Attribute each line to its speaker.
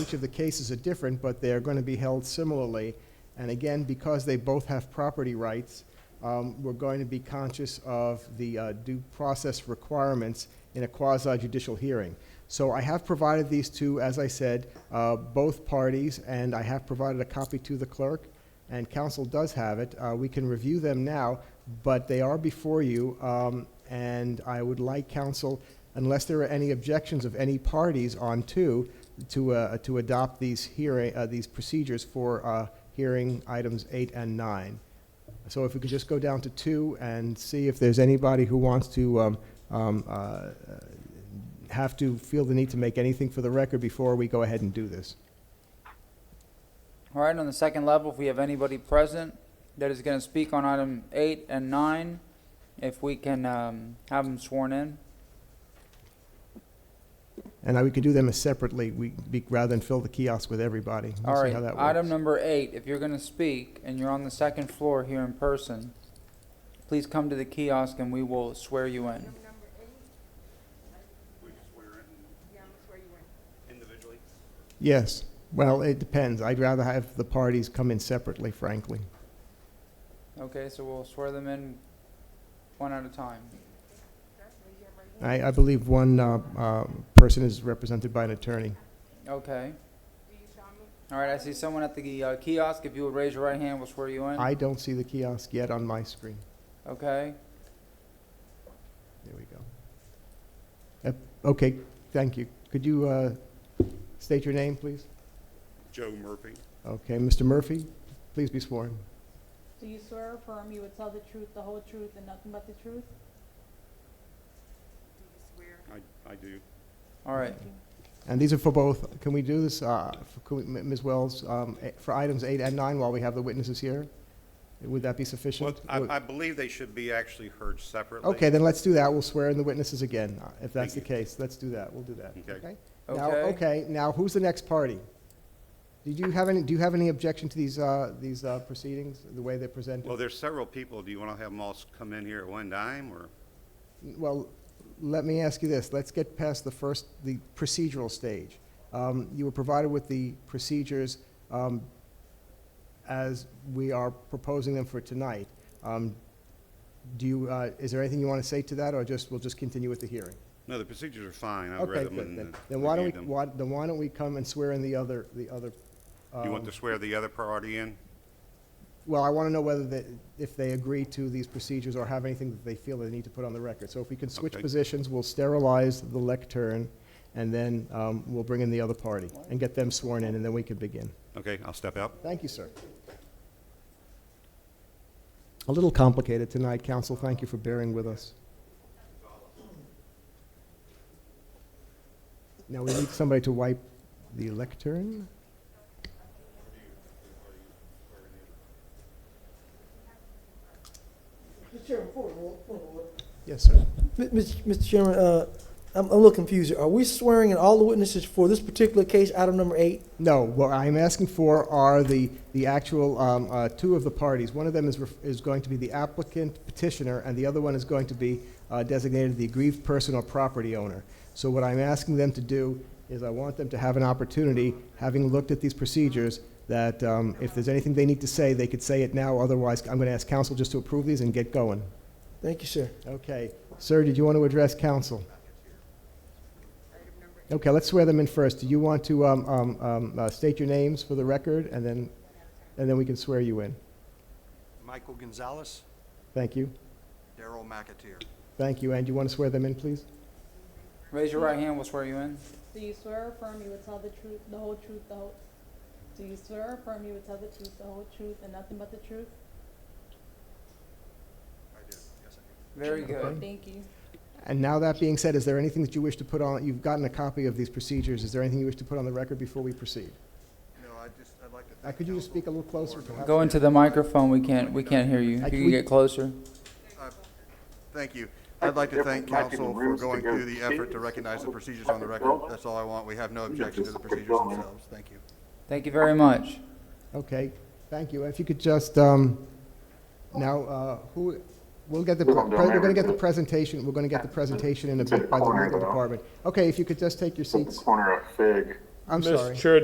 Speaker 1: each of the cases are different, but they're going to be held similarly. And again, because they both have property rights, um, we're going to be conscious of the uh, due process requirements in a quasi-judicial hearing. So I have provided these to, as I said, uh, both parties, and I have provided a copy to the clerk, and council does have it. Uh, We can review them now, but they are before you, um, and I would like council, unless there are any objections of any parties on two, to, uh, to adopt these hearing, uh, these procedures for uh, hearing items eight and nine. So if we could just go down to two and see if there's anybody who wants to um, um, uh, have to feel the need to make anything for the record before we go ahead and do this.
Speaker 2: All right, on the second level, if we have anybody present that is going to speak on item eight and nine, if we can um, have them sworn in.
Speaker 1: And I- we could do them as separately, we, be- rather than fill the kiosk with everybody. We'll
Speaker 2: All
Speaker 1: see
Speaker 2: right,
Speaker 1: how that
Speaker 2: item
Speaker 1: works.
Speaker 2: number eight, if you're going to speak and you're on the second floor here in person, please come to the kiosk and we will swear you in.
Speaker 3: We just swear in
Speaker 4: Yeah, I'm sure you were.
Speaker 3: individually.
Speaker 1: Yes, well, it depends. I'd rather have the parties come in separately, frankly.
Speaker 2: Okay, so we'll swear them in one at a time.
Speaker 4: Raise your right hand.
Speaker 1: I, I believe one uh, uh, person is represented by an attorney.
Speaker 2: Okay.
Speaker 4: Do you solemnly,
Speaker 2: All right, I see someone at the uh, kiosk. If you would raise your right hand, we'll swear you in.
Speaker 1: I don't see the kiosk yet on my screen.
Speaker 2: Okay.
Speaker 1: There we go. Yep, Okay, thank you. Could you uh, state your name, please?
Speaker 3: Joe Murphy.
Speaker 1: Okay, Mr. Murphy, please be sworn.
Speaker 5: Do you swear or affirm you would tell the truth, the whole truth, and nothing but the truth?
Speaker 4: do you swear?
Speaker 3: I, I do.
Speaker 2: All right.
Speaker 1: And these are for both, can we do this, uh, for- could we- M- Ms. Wells, um, eh, for items eight and nine while we have the witnesses here? Would that be
Speaker 3: Well,
Speaker 1: sufficient?
Speaker 3: I, I believe they should be actually heard separately.
Speaker 1: Okay, then let's do that. We'll swear in the witnesses again, uh, if that's the
Speaker 3: Thank
Speaker 1: case. Let's do that, we'll do that.
Speaker 3: Okay.
Speaker 1: Now,
Speaker 2: Okay.
Speaker 1: okay, now who's the next party? Did you have any, do you have any objection to these, uh, these uh, proceedings, the way they're presented?
Speaker 3: Well, there's several people. Do you want to have them all s- come in here at one time, or?
Speaker 1: Well, let me ask you this, let's get past the first, the procedural stage. Um, You were provided with the procedures um, as we are proposing them for tonight. Um, Do you, uh, is there anything you want to say to that, or just, we'll just continue with the hearing?
Speaker 3: No, the procedures are fine. I've
Speaker 1: Okay,
Speaker 3: read them
Speaker 1: good,
Speaker 3: and
Speaker 1: then,
Speaker 3: uh,
Speaker 1: then why don't we,
Speaker 3: reviewed them.
Speaker 1: why- then why don't we come and swear in the other, the other?
Speaker 3: You
Speaker 1: um,
Speaker 3: want to swear the other party in?
Speaker 1: Well, I want to know whether they, if they agree to these procedures or have anything that they feel they need to put on the record. So if we can switch
Speaker 3: Okay.
Speaker 1: positions, we'll sterilize the lectern, and then um, we'll bring in the other party and get them sworn in, and then we can begin.
Speaker 3: Okay, I'll step out.
Speaker 1: Thank you, sir. A little complicated tonight, counsel. Thank you for bearing with us. Now, we need somebody to wipe the lectern.
Speaker 6: Mr. Chairman, point of order, point of order.
Speaker 1: Yes, sir.
Speaker 6: Mi- Mr. Mr. Chairman, uh, I'm, I'm a little confused. here. Are we swearing in all the witnesses for this particular case, item number eight?
Speaker 1: No, what I'm asking for are the, the actual, um, uh, two of the parties. One of them is, ref- is going to be the applicant petitioner, and the other one is going to be uh, designated the aggrieved person or property owner. So what I'm asking them to do is I want them to have an opportunity, having looked at these procedures, that um, if there's anything they need to say, they could say it now, otherwise I'm going to ask council just to approve these and get going.
Speaker 6: Thank you, sir.
Speaker 1: Okay, sir, did you want to address council?
Speaker 4: Item number eight.
Speaker 1: Okay, let's swear them in first. Do you want to um, um, um, uh, state your names for the record, and then, and then we can swear you in?
Speaker 7: Michael Gonzalez,
Speaker 1: Thank you.
Speaker 7: Daryl McAteer.
Speaker 1: Thank you, and you want to swear them in, please?
Speaker 2: Raise your right hand. We'll swear you in.
Speaker 5: Do you swear or affirm you would tell the truth, the whole truth, the whole, do you swear or affirm you would tell the truth, the whole truth, and nothing but the truth?
Speaker 7: I do, yes, I
Speaker 2: Very good.
Speaker 5: Thank you.
Speaker 1: And now that being said, is there anything that you wish to put on, you've gotten a copy of these procedures, is there anything you wish to put on the record before we proceed?
Speaker 7: do. No, I just, I'd like to
Speaker 1: Uh,
Speaker 7: thank
Speaker 1: Could you just
Speaker 7: counsel
Speaker 1: speak a little closer? perhaps?
Speaker 2: Go into the microphone. We can't. We can't hear you. If
Speaker 1: I-
Speaker 2: you
Speaker 1: we-
Speaker 2: can get closer.
Speaker 7: Thank you. I'd like to thank
Speaker 8: Different
Speaker 7: council for
Speaker 8: rooms
Speaker 7: going
Speaker 8: to go
Speaker 7: through the
Speaker 8: see.
Speaker 7: effort to recognize the procedures on the record. That's all I want. We have no objection to the procedures themselves. Thank you.
Speaker 2: Thank you very much.
Speaker 1: Okay, thank you. If you could just, um, now, uh, who, we'll get the, pre- we're going to get the presentation, we're going to get the presentation in a bit by the legal department. Okay, if you could just take your
Speaker 8: At the
Speaker 1: seats.
Speaker 8: corner of Fig.
Speaker 1: I'm
Speaker 9: Mr.
Speaker 1: sorry.
Speaker 9: Chair,